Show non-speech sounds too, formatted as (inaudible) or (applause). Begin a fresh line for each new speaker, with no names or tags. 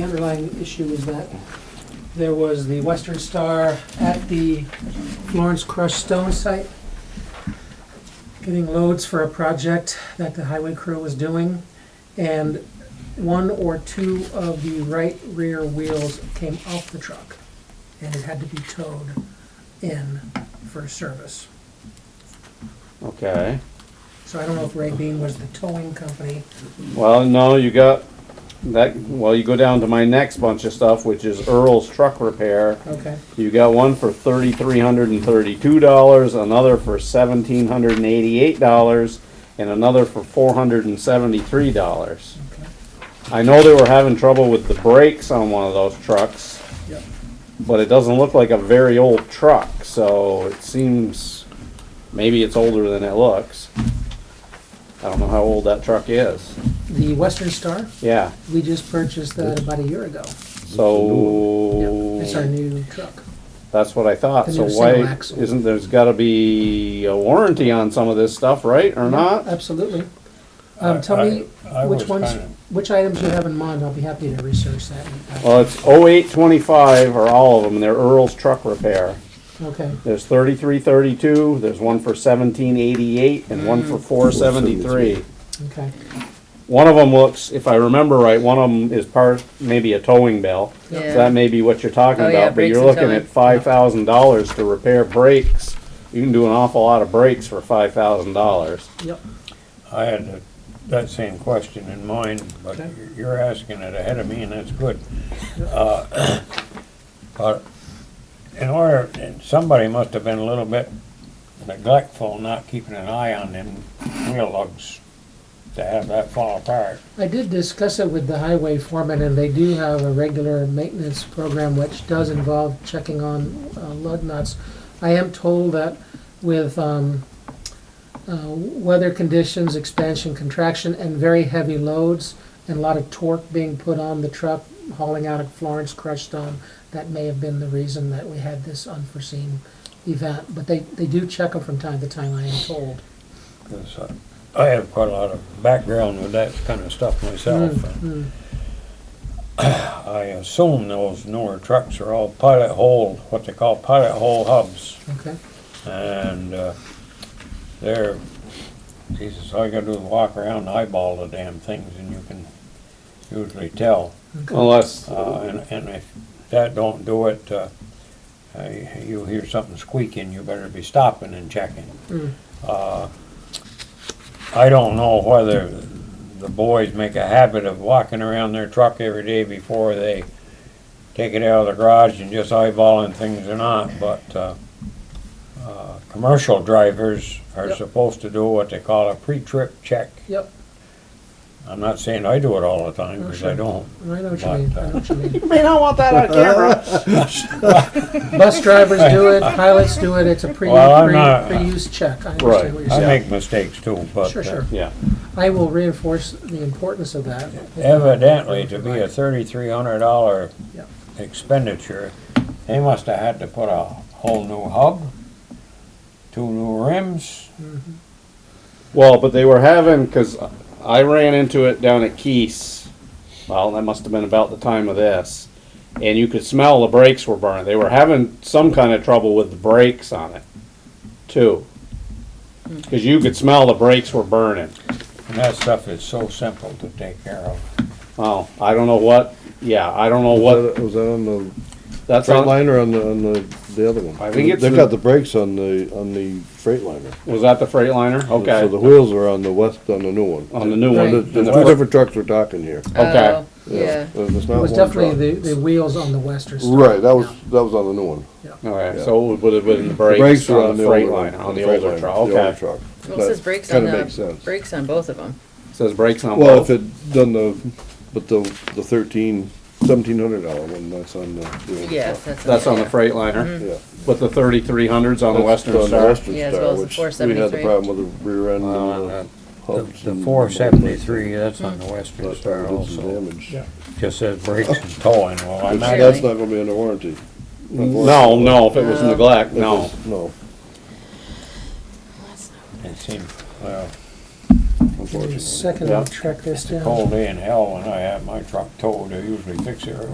The underlying issue is that there was the Western Star at the Florence Crush Stone site, getting loads for a project that the highway crew was doing, and one or two of the right rear wheels came off the truck, and it had to be towed in for service.
Okay,
So I don't know if Ray Bean was the towing company.
well, no, you got that, well, you go down to my next bunch of stuff, which is Earl's Truck Repair.
Okay.
You got one for thirty-three hundred and thirty-two dollars, another for seventeen hundred and eighty-eight dollars, and another for four hundred and seventy-three dollars.
Okay.
I know they were having trouble with the brakes on one of those trucks,
Yep.
but it doesn't look like a very old truck, so it seems, maybe it's older than it looks. I don't know how old that truck is.
The Western Star,
Yeah,
we just purchased that about a year ago.
so.
It's our new truck.
That's what I thought,
The
so
new single
why,
axle.
isn't, there's gotta be a warranty on some of this stuff, right, or not?
Absolutely. Um, tell me
I- I
which
was
ones,
kinda-
which items you have in mind, I'll be happy to research that.
Uh,
Well, it's oh eight twenty-five are all of them, and they're Earl's Truck Repair.
Okay,
There's thirty-three thirty-two, there's one for seventeen eighty-eight, and
Mm.
one for four seventy-three.
okay,
One of them looks, if I remember right, one of them is part, maybe a towing bell. So
Yeah.
that may be what you're talking
Oh, yeah,
about, but
brakes
you're
and
looking
towing.
at five thousand dollars to repair brakes. You can do an awful lot of brakes for five thousand dollars.
yep,
I had that- that same question in mind, but
Okay.
you're asking it ahead of me, and that's good. Uh, (coughs) But in order, and somebody must have been a little bit neglectful, not keeping an eye on them wheel lugs to have that fall apart.
I did discuss it with the highway foreman, and they do have a regular maintenance program which does involve checking on uh, lug nuts. I am told that with um, uh, weather conditions, expansion, contraction, and very heavy loads, and a lot of torque being put on the truck hauling out of Florence crushed stone, that may have been the reason that we had this unforeseen event. But they, they do check them from time to time, I am told.
'cause I I have quite a lot of background with that kind of stuff myself.
Mm,
(clears throat) I assume those newer trucks are all pilot hole, what they call pilot hole hubs.
Okay,
And uh, there, Jesus, all you gotta do is walk around, and eyeball the damn things, and you can usually tell.
Unless,
Uh, and, and if that don't do it, uh, uh, you hear something squeaking, you better be stopping and checking.
Mm.
Uh, I don't know whether the boys make a habit of walking around their truck every day before they take it out of the garage and just eyeballing things or not, but, uh, uh, commercial drivers are
Yep.
supposed to do what they call a pre-trip check.
yep,
I'm not saying I do it all the time,
Oh,
because
sure.
I don't.
I know what you mean, I know what you mean.
You may not want that on camera.
Bus drivers do it, pilots do it, it's a pre,
Well, I'm
pre,
not- uh,
pre-use check, I
Right.
understand what you're
I
saying.
make mistakes too, but.
Sure,
uh,
sure,
(laughs) Yeah,
I will reinforce the importance of that.
Evidently, to be a thirty-three hundred dollar
Yep.
expenditure, they must have had to put a whole new hub, two new rims.
well, but they were having, cause I ran into it down at Keys. Well, that must've been about the time of this. And you could smell the brakes were burning. They were having some kind of trouble with the brakes on it, too. Cause you could smell the brakes were burning.
And that stuff is so simple to take care of.
Oh, I don't know what, yeah, I don't know what,
Was that- was that on the
that's on,
Freightliner or on the, on the, the other one?
I think it's
They've
the-
got the brakes on the, on the Freightliner.
was that the Freightliner?
So the
Okay,
wheels are on the west, on the new one.
on the new
Right.
The,
one.
the two different trucks we're talking here.
Okay.
Oh, Yeah.
Uh, It's
It
not
was
one
definitely
truck.
the, the wheels on the western side.
Right, that was, that was on the new one.
Okay, so it would have been the brakes
were
on the
old one,
Freightliner, on the older truck,
The older
okay.
truck.
Well,
That
it says brakes on
Kinda makes
the,
sense.
brakes on both of them.
Says brakes on both.
Well, if it done the, but the, the thirteen, seventeen hundred dollar one, that's on the. the older
Yeah,
truck.
that's.
That's on the
yeah.
Freightliner,
Yeah.
but the thirty-three hundreds on the
That's
Western
on the
Star.
Western
Yeah, as
Star,
well as the
which We had the
473.
problem with the rear end
Uh,
and the
The-
hubs.
The
and-
four seventy-three, that's on the Western
But we
Star
did some
also.
damage.
Just says brakes and towing, well, I'm
That's
not,
that's not gonna be under warranty.
No, no, if it was neglect, no.
No.
it seems, well,
I'm
Give me a
unfortunately.
second,
Yeah.
I'll track this down.
Cold day in hell when I have my truck towed, I usually fix it early.